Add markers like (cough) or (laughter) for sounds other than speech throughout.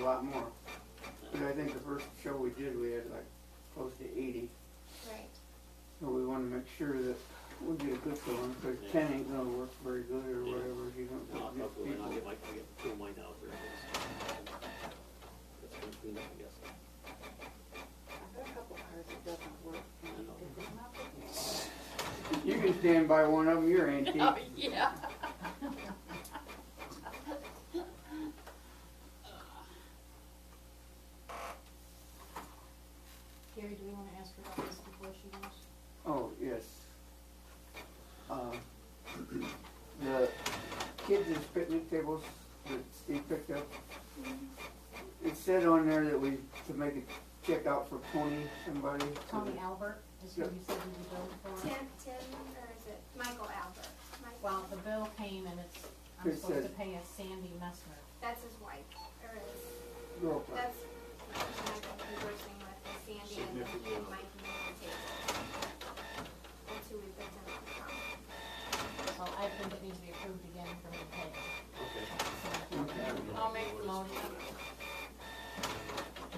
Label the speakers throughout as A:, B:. A: lot more. But I think the first show we did, we had like close to eighty,
B: Right.
A: so we wanna make sure that we get a good one, cause
C: Yeah.
A: ten ain't gonna work very good or
C: Yeah.
A: whatever, if you don't
C: No, I'll
A: get
C: probably
A: good
C: not
A: people.
C: get my, get, fill mine out there. That's gonna clean up, I guess.
D: I've got a couple hours it doesn't work. and
C: I know.
D: it does not work.
A: You can stand by one of them, you're antique.
B: Oh, yeah.
D: Gary, do we wanna ask her about this before she goes?
A: Oh, yes. Um, The kids' is picnic tables that Steve picked up, it said on there that we, to make a check out for Tony, somebody. so
D: Tony
A: that-
D: Albert is who you said you were going for?
B: Tim, Tim, or is it Michael Albert? Mike-
D: Well, the bill came and it's, I'm
A: It
D: supposed to
A: says-
D: pay a Sandy Messner.
B: That's his wife, or his,
A: Girlfriend.
B: that's Michael conversing with is Sandy and he and Mike made the table. That's who we picked him up from.
D: So I think it needs to be approved again for me to pay.
C: Okay.
D: So,
B: I'll make the motion.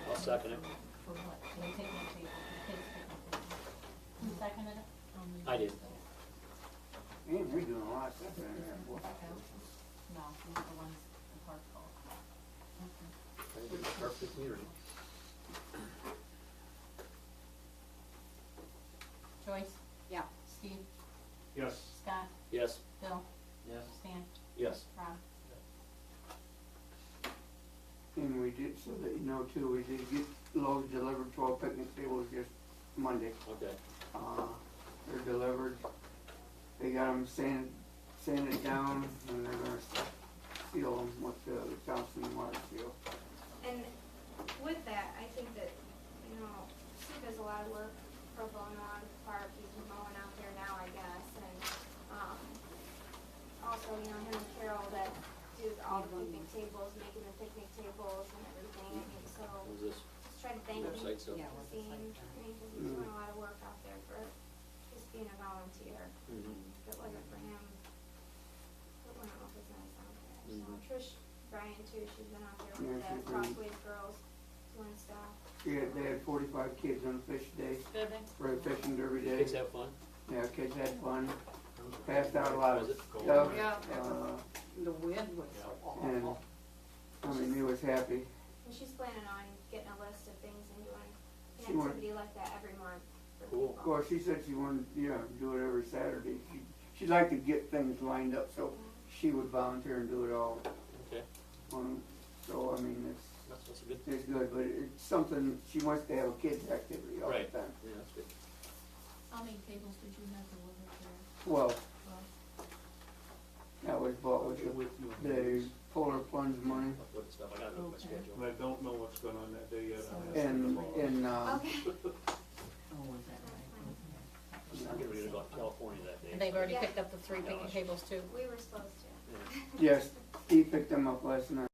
C: I'll second it.
D: For what? Can we take my table? The kids take my table. You seconded it? Um,
C: I did.
A: Man, they're doing a lot of stuff in there, boy.
D: Okay. No, these are the ones the park called.
C: Perfect meter.
D: Joyce? Yeah. Steve?
E: Yes.
D: Scott?
C: Yes,
D: Bill?
E: Yes.
D: Stan?
C: yes.
D: Rob?
A: And we did, so that you know too, we did get loads delivered to our picnic tables just Monday.
C: Okay,
A: Uh, they're delivered. They got them sand, sanded down and they're gonna seal them with the Johnson water seal.
B: And with that, I think that, you know, Steve does a lot of work pro bono out of the park, he's mowing out there now, I guess, and, um, also, you know, him and Carol that do all the picnic tables, making the picnic tables and everything, I think, so,
C: what was
B: just
C: this?
B: try to thank him,
C: Website stuff?
D: Yeah.
B: Steve, I mean, 'cause he's doing a lot of work out there for just being a volunteer,
C: Mhm.
B: if it wasn't for him, it wouldn't have been out there, so,
C: Mhm.
B: Trish Bryan too, she's been out there with
A: Mm-hmm. Yeah, she's
B: the
A: been-
B: Crossways girls doing stuff.
A: Yeah, they had forty-five kids on fish day,
D: Good day.
A: for a fishing derby
C: Did
A: day.
C: kids have fun?
A: Yeah, kids had fun, passed out a lot of
C: Was it?
A: stuff.
F: Yeah.
A: Uh,
F: The wind was so
A: And,
F: awful.
A: I mean, he was happy.
B: And she's planning on getting a list of things and doing
A: She
B: an
A: wanted-
B: activity like that every month. for
C: Cool.
B: people.
A: Of course, she said she wanted, you know, do it every Saturday. She, she'd like to get things lined up, so she would volunteer and do it all.
C: Okay,
A: Um, so, I mean, it's,
C: that's, that's a good,
A: it's good, but it's something, she wants to have a kids activity all
C: Right.
A: the time.
C: yeah, that's good.
G: How many tables did you have delivered there?
A: Well, that was bought with the,
E: With you.
A: the polar plunge money
C: Upload stuff, I gotta look at my
G: Okay.
C: schedule.
E: And I don't know what's going on that day yet. I haven't
A: and,
E: seen the law.
A: and, uh,
B: Okay. (laughs)
F: Oh, was that
C: I'm getting ready to go out to California that day.
D: And they've already
B: Yeah.
D: picked up the three picnic tables too?
B: We were supposed to.
C: Yeah.
A: yes, he picked them up last night.